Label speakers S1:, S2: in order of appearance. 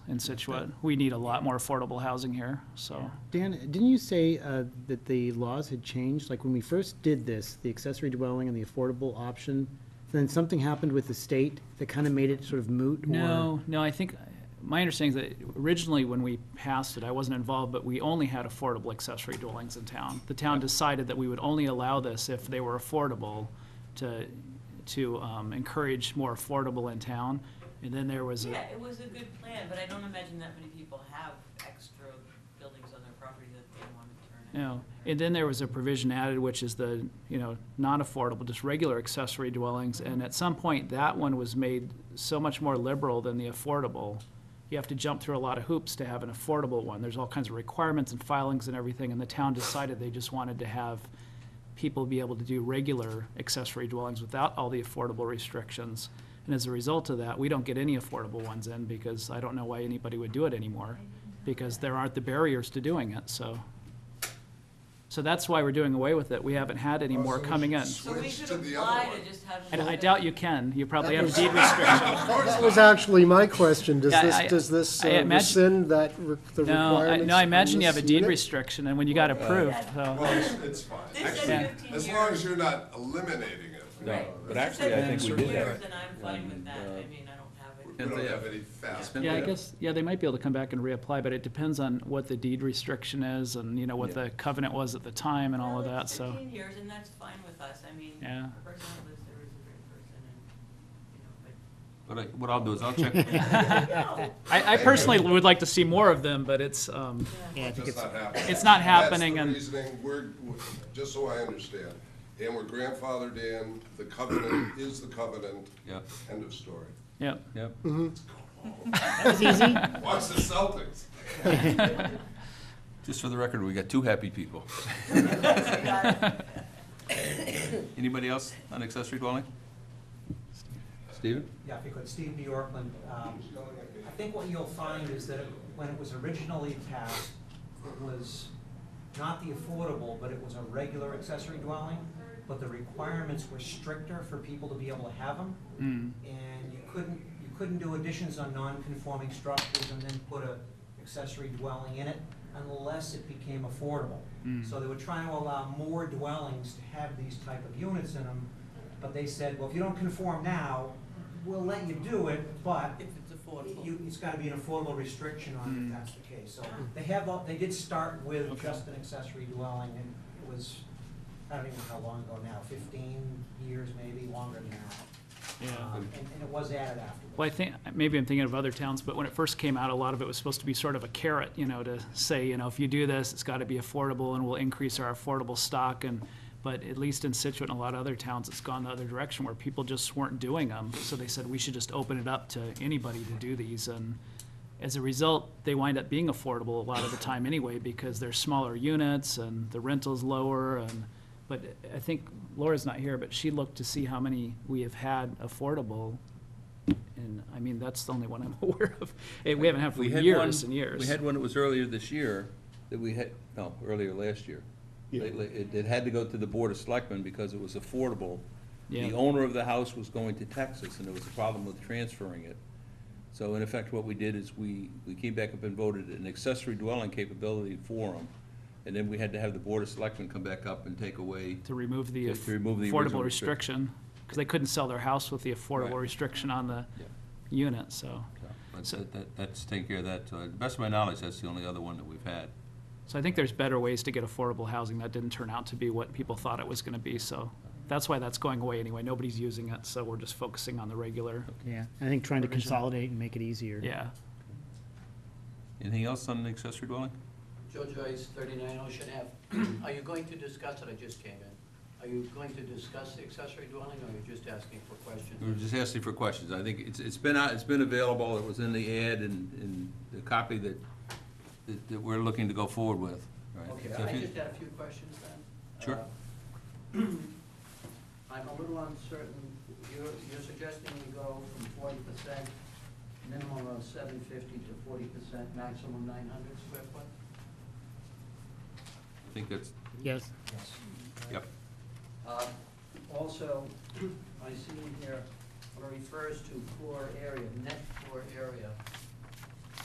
S1: in Situate. We need a lot more affordable housing here, so.
S2: Dan, didn't you say uh, that the laws had changed? Like, when we first did this, the accessory dwelling and the affordable option, then something happened with the state that kind of made it sort of moot? or-
S1: No, no, I think, my understanding is that originally when we passed it, I wasn't involved, but we only had affordable accessory dwellings in town. The town decided that we would only allow this if they were affordable to, to um, encourage more affordable in town. And then there was, a-
S3: Yeah, it was a good plan, but I don't imagine that many people have extra buildings on their property that they want to turn into.
S1: no, and then there was a provision added, which is the, you know, non-affordable, just regular accessory dwellings. And at some point, that one was made so much more liberal than the affordable. you have to jump through a lot of hoops to have an affordable one. There's all kinds of requirements and filings and everything, and the town decided they just wanted to have people be able to do regular accessory dwellings without all the affordable restrictions. And as a result of that, we don't get any affordable ones in, because I don't know why anybody would do it anymore, because there aren't the barriers to doing it, so. So that's why we're doing away with it. We haven't had any
S4: Oh,
S1: more
S4: so we
S1: coming in.
S4: should
S3: So we
S4: Switch
S3: should
S4: to the other
S3: apply
S4: one.
S3: to just have.
S1: And I doubt you can. You probably have
S4: was-
S1: deed restrictions.
S4: That
S5: That was actually my question. Does
S1: Yeah,
S5: this,
S1: I-
S5: does
S1: I
S5: this uh,
S1: imagine-
S5: rescind that, re- the
S1: No, I,
S5: requirements?
S1: no, I imagine
S5: on
S1: you have a
S5: this
S1: deed
S5: unit?
S1: restriction, and when you got approved, so.
S4: Well, it's, it's fine.
S3: They said
S4: Actually,
S3: 15
S4: As long as
S3: years.
S4: you're not eliminating it.
S6: No,
S4: Right.
S6: but actually, I think we did have.
S3: And I'm fine with that, I
S6: one, uh,
S3: mean, I don't have
S4: We
S3: it.
S4: we don't
S6: Yeah.
S4: have any fast.
S6: been-
S1: Yeah, I
S6: Yeah.
S1: guess, yeah, they might be able to come back and reapply, but it depends on what the deed restriction is and, you know, what
S6: Yeah.
S1: the covenant was at the time and all of
S3: Well,
S1: that,
S3: it's
S1: so.
S3: Fifteen years, and that's fine with us, I mean,
S1: Yeah.
S3: the person that lives there is a great person, and, you know,
S7: But I,
S3: but.
S7: what I'll do is I'll check,
S1: I, I personally would like to see more of them, but it's, um,
S2: Yeah, I think
S4: That's
S2: it's,
S4: not happening.
S1: It's not happening and-
S4: That's the reasoning, we're, we're- just so I understand, and we're grandfathered in, the covenant is the covenant,
S7: yep,
S4: end of story.
S1: yep.
S7: yep.
S4: Watch the Celtics.
S7: Just for the record, we got two happy people. Anybody else on accessory dwelling? Steven?
S8: Yeah, if you could, Steve New Yorkland. Um, I think what you'll find is that when it was originally passed, it was not the affordable, but it was a regular accessory dwelling, but the requirements were stricter for people to be able to have them. And you couldn't, you couldn't do additions on non-conforming structures and then put a accessory dwelling in it unless it became affordable. So they were trying to allow more dwellings to have these type of units in them, but they said, well, if you don't conform now, we'll let you do it, but
S3: If it's affordable.
S8: you, it's gotta be an affordable restriction on it, if that's the case. So they have, all- they did start with just an accessory dwelling, and it was, I don't even know how long ago now, fifteen years, maybe longer than that. Um, And, and it was added afterwards.
S1: Well, I think, maybe I'm thinking of other towns, but when it first came out, a lot of it was supposed to be sort of a carrot, you know, to say, you know, if you do this, it's gotta be affordable and we'll increase our affordable stock and, but at least in Situate and a lot of other towns, it's gone the other direction where people just weren't doing them. So they said, we should just open it up to anybody to do these and as a result, they wind up being affordable a lot of the time anyway because they're smaller units and the rental's lower and, but I think Laura's not here, but she looked to see how many we have had affordable and, I mean, that's the only one I'm aware of. Eh, We haven't had for
S6: We had
S1: years
S6: one-
S1: and years.
S6: We had one that was earlier this year, that we had, no, earlier last year.
S5: Yeah.
S6: Lately, It, it had to go to the Board of Selectmen because it was affordable.
S1: Yeah.
S6: The owner of the house was going to Texas, and there was a problem with transferring it. So in effect, what we did is we, we came back up and voted an accessory dwelling capability for them. And then we had to have the Board of Selectmen come back up and take away,
S1: To remove the
S6: To- to remove the original
S1: affordable
S6: restriction.
S1: restriction, because they couldn't sell their house with the affordable
S6: Right.
S1: restriction on the
S6: Yeah.
S1: unit, so.
S7: But
S1: So-
S7: that, that- that's taking care of that. To the best of my knowledge, that's the only other one that we've had.
S1: So I think there's better ways to get affordable housing. That didn't turn out to be what people thought it was gonna be, so. That's why that's going away anyway. Nobody's using it, so we're just focusing on the regular,
S2: yeah, I think trying to
S1: Provision.
S2: consolidate and make it easier.
S1: yeah.
S7: Anything else on the accessory dwelling?
S9: Joe Joyce, 39 Ocean Ave. Are you going to discuss it? I just came in. Are you going to discuss the accessory dwelling, or are you just asking for
S6: we
S9: questions?
S6: were just asking for questions. I think it's, it's been out, it's been available, it was in the ad and, and the copy that, that, that we're looking to go forward with, right?
S9: Okay,
S6: So if
S9: I
S6: you-
S9: just had a few questions then.
S6: Sure.
S9: Uh, I'm a little uncertain. You're, you're suggesting we go from 40% minimum of 750 to 40% maximum 900 square foot?
S7: I think that's,
S2: Yes.
S9: Yes.
S7: yep.
S9: Uh, Also, I see in here, where it refers to floor area, net floor area.